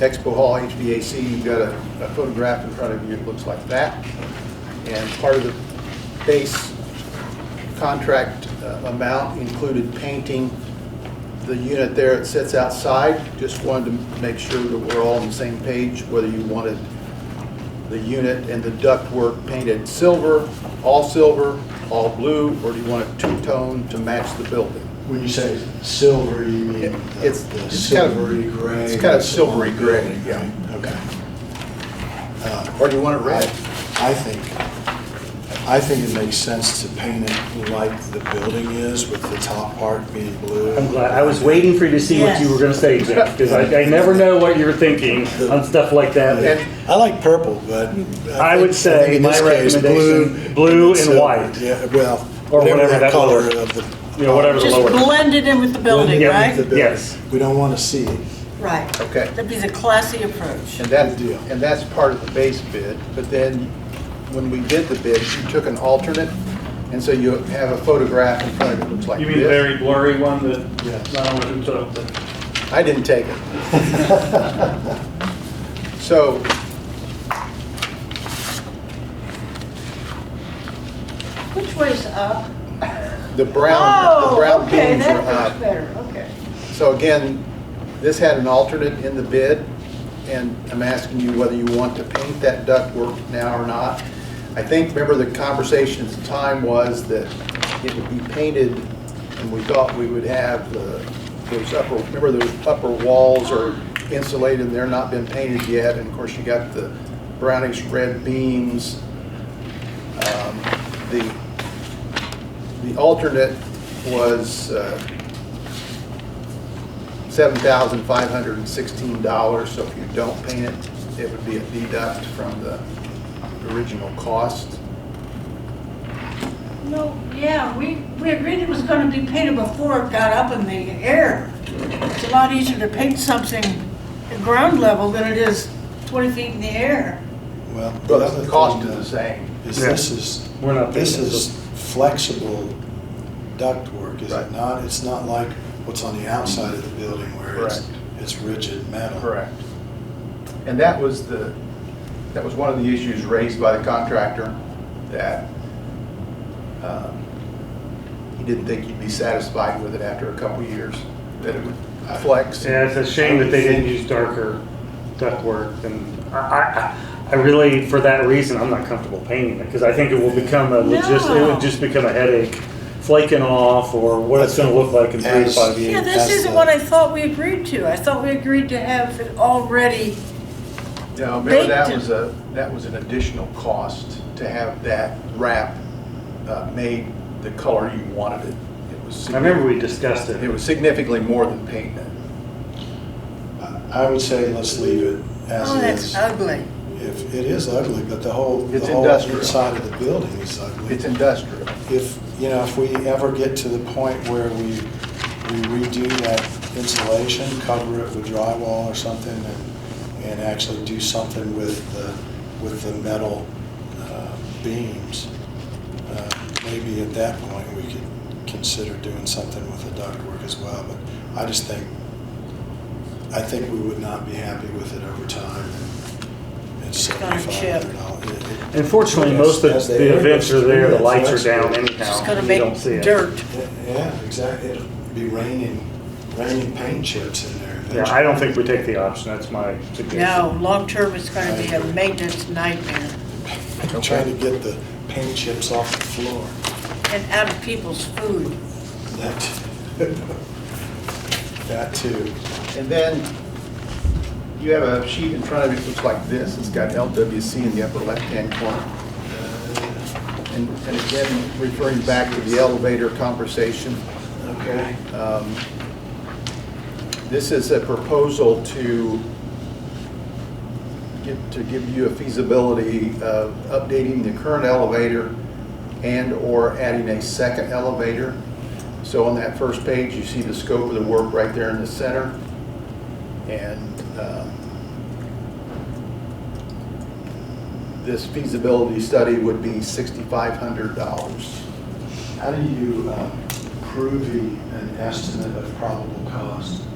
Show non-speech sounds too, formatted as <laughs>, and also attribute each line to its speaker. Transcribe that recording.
Speaker 1: Expo Hall HVAC, you've got a a photograph in front of you, it looks like that. And part of the base contract uh, amount included painting the unit there, it sits outside. Just wanted to make sure that we're all on the same page, whether you wanted the unit and the ductwork painted silver, all silver, all blue, or do you want it two-tone to match the building?
Speaker 2: When you say silver, you mean the
Speaker 1: It's-
Speaker 2: the
Speaker 1: it's kind of-
Speaker 2: silvery gray?
Speaker 1: it's kind of
Speaker 2: that's on the
Speaker 1: silvery gray,
Speaker 2: building,
Speaker 1: yeah.
Speaker 2: right? Okay.
Speaker 1: Or do you want it
Speaker 2: I,
Speaker 1: red?
Speaker 2: I think, I think it makes sense to paint it like the building is, with the top part being blue.
Speaker 3: I'm glad. I was waiting for you to see what you were going to say, Jeff, because I, I never know what you're thinking on stuff like that.
Speaker 1: And-
Speaker 2: I like purple, but.
Speaker 3: I would
Speaker 2: think-
Speaker 3: say
Speaker 2: think in
Speaker 3: my
Speaker 2: this case,
Speaker 3: recommendation, blue and
Speaker 2: silver.
Speaker 3: white.
Speaker 2: Yeah, well,
Speaker 3: Or
Speaker 2: whatever
Speaker 3: whatever
Speaker 2: that
Speaker 3: that
Speaker 2: color
Speaker 3: lower-
Speaker 2: of the.
Speaker 3: you know, whatever the
Speaker 4: Just
Speaker 3: lower.
Speaker 4: blend it in with the building,
Speaker 3: Yeah,
Speaker 2: The
Speaker 4: right?
Speaker 2: building.
Speaker 3: Yes.
Speaker 2: We don't want to see it.
Speaker 4: Right.
Speaker 1: Okay.
Speaker 4: That'd be the classy approach.
Speaker 1: And that,
Speaker 2: Good deal.
Speaker 1: and that's part of the base bid, but then when we did the bid, you took an alternate, and so you have a photograph in front of it, that looks like
Speaker 5: You mean the
Speaker 1: this.
Speaker 5: very blurry one that,
Speaker 2: Yes.
Speaker 5: I don't know, so, but-
Speaker 1: I didn't take
Speaker 5: <laughs>
Speaker 1: it. So.
Speaker 6: Which way's up?
Speaker 1: The brown, the
Speaker 6: Oh,
Speaker 1: brown
Speaker 6: okay,
Speaker 1: beams are
Speaker 6: that looks
Speaker 1: up.
Speaker 6: better, okay.
Speaker 1: So again, this had an alternate in the bid, and I'm asking you whether you want to paint that ductwork now or not. I think, remember the conversation at the time was that it would be painted, and we thought we would have the- those upper, remember those upper walls are insulated, and they're not been painted yet, and of course, you got the brownish red beams. Um, The, the alternate was uh, $7,516, so if you don't paint it, it would be a deduct from the original cost.
Speaker 6: No, yeah, we, we agreed it was gonna be painted before it got up in the air. It's a lot easier to paint something at ground level than it is 20 feet in the air.
Speaker 2: Well, the
Speaker 1: But
Speaker 2: other
Speaker 1: the cost
Speaker 2: thing uh,
Speaker 1: is the same.
Speaker 2: Is
Speaker 3: Yeah.
Speaker 2: this is,
Speaker 3: We're not
Speaker 2: this
Speaker 3: doing that.
Speaker 2: is flexible ductwork, is
Speaker 1: Right.
Speaker 2: it not? It's not like what's on the outside of the building where it's,
Speaker 1: Correct.
Speaker 2: it's rigid metal.
Speaker 1: And that was the, that was one of the issues raised by the contractor, that um, he didn't think you'd be satisfied with it after a couple of years, that it would flex.
Speaker 3: Yeah, it's a shame that they didn't use darker ductwork. And I, I, I really, for that reason, I'm not comfortable painting it because I think it will become a logis, it
Speaker 4: No.
Speaker 3: would just become a headache flaking off or what it's going to look like in three to five
Speaker 6: Yeah,
Speaker 3: years.
Speaker 2: that's
Speaker 6: this isn't
Speaker 2: the-
Speaker 6: what I thought we agreed to. I thought we agreed to have it already,
Speaker 1: No, remember that
Speaker 6: Baked.
Speaker 1: was a, that was an additional cost to have that wrap uh, made the color you wanted it. It was,
Speaker 3: I remember we discussed
Speaker 1: significant- it
Speaker 3: it.
Speaker 1: was significantly more than painting it.
Speaker 2: I I would say let's leave it as
Speaker 6: oh,
Speaker 2: it
Speaker 6: that's
Speaker 2: is.
Speaker 6: ugly.
Speaker 2: If, it is ugly, but the whole, the
Speaker 1: It's
Speaker 2: whole
Speaker 1: industrial.
Speaker 2: inside of the building is ugly.
Speaker 1: It's industrial.
Speaker 2: if, you know, if we ever get to the point where we we redo that insulation, cover it with drywall or something, and, and actually do something with the, with the metal uh, beams, uh, maybe at that point, we could consider doing something with the ductwork as well, but I just think, I think we would not be happy with it over time. It's
Speaker 6: It's gonna chip.
Speaker 2: $7,500.
Speaker 3: Unfortunately,
Speaker 2: Yes,
Speaker 3: most of
Speaker 2: as they
Speaker 3: the
Speaker 2: are,
Speaker 3: events are
Speaker 2: that's-
Speaker 3: there, the
Speaker 2: that's
Speaker 3: lights are
Speaker 2: flexible.
Speaker 3: down anyhow.
Speaker 6: It's gonna
Speaker 3: You
Speaker 6: make
Speaker 3: don't see it.
Speaker 6: dirt.
Speaker 2: Yeah, exactly. It'll be raining, raining paint chips in there.
Speaker 3: Yeah, I don't think we take the option. That's my suggestion.
Speaker 6: No, long-term, it's gonna be a maintenance nightmare
Speaker 2: I'm trying to get the paint chips off the floor.
Speaker 6: and out of people's food.
Speaker 2: That, <laughs> that too.
Speaker 1: And then you have a sheet in front of you that looks like this. It's got LWC in the upper left-hand corner. And and again, referring back to the elevator conversation,
Speaker 2: Okay.
Speaker 1: um, this is a proposal to get, to give you a feasibility of updating the current elevator and/or adding a second elevator. So on that first page, you see the scope of the work right there in the center. And um, this feasibility study would be $6,500.
Speaker 2: uh, How do you um, prove the- an estimate of probable cost?